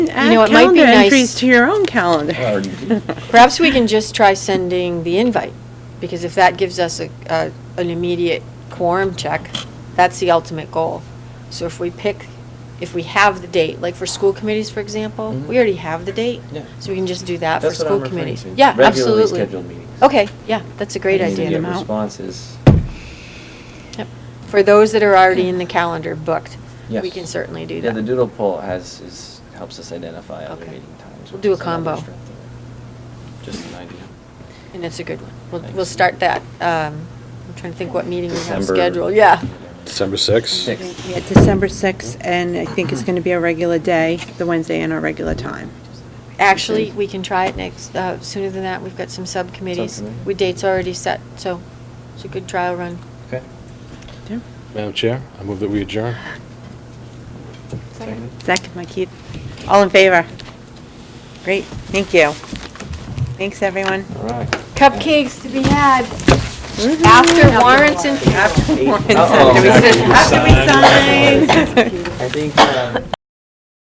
know, Add it might be Ah, calendar nice- entries to your own calendar. Perhaps we can just try sending the invite, because if that gives us a, a- an immediate quorum check, that's the ultimate goal. So if we pick, if we have the date, like for school committees, for example, we Mhm. already have the date. Yeah. So we can just do that for That's what I'm school referring committees. to, Yeah, absolutely. Regularly scheduled meetings. Okay, yeah, that's a great I need to idea. get Them out. responses. Yep. For those that are already in the calendar booked, we Yes. can certainly do Yeah, the that. doodle poll has, is, helps us identify other Okay. meeting times. We'll which do a is another combo. strength of it. Just an idea. And it's a good one. We'll, we'll Thanks. start that, um, I'm trying to think what meeting we have December- scheduled, yeah. December 6th? Six. Yeah, December 6th, and I think it's going to be our regular day, the Wednesday and our regular time. Actually, we can try it next, uh, sooner than that, we've got some subcommittees. Subcommittee. We, date's already set, so it's a good trial run. Okay. Yeah. Madam Chair, I move that we adjourn. Second. Zach and Mike, all in favor? Great, thank you. Thanks, everyone. All right. Cupcakes to be had Mm-hmm. after warrants and. After Eight. warrants, Uh-oh. after we sign. I think, uh,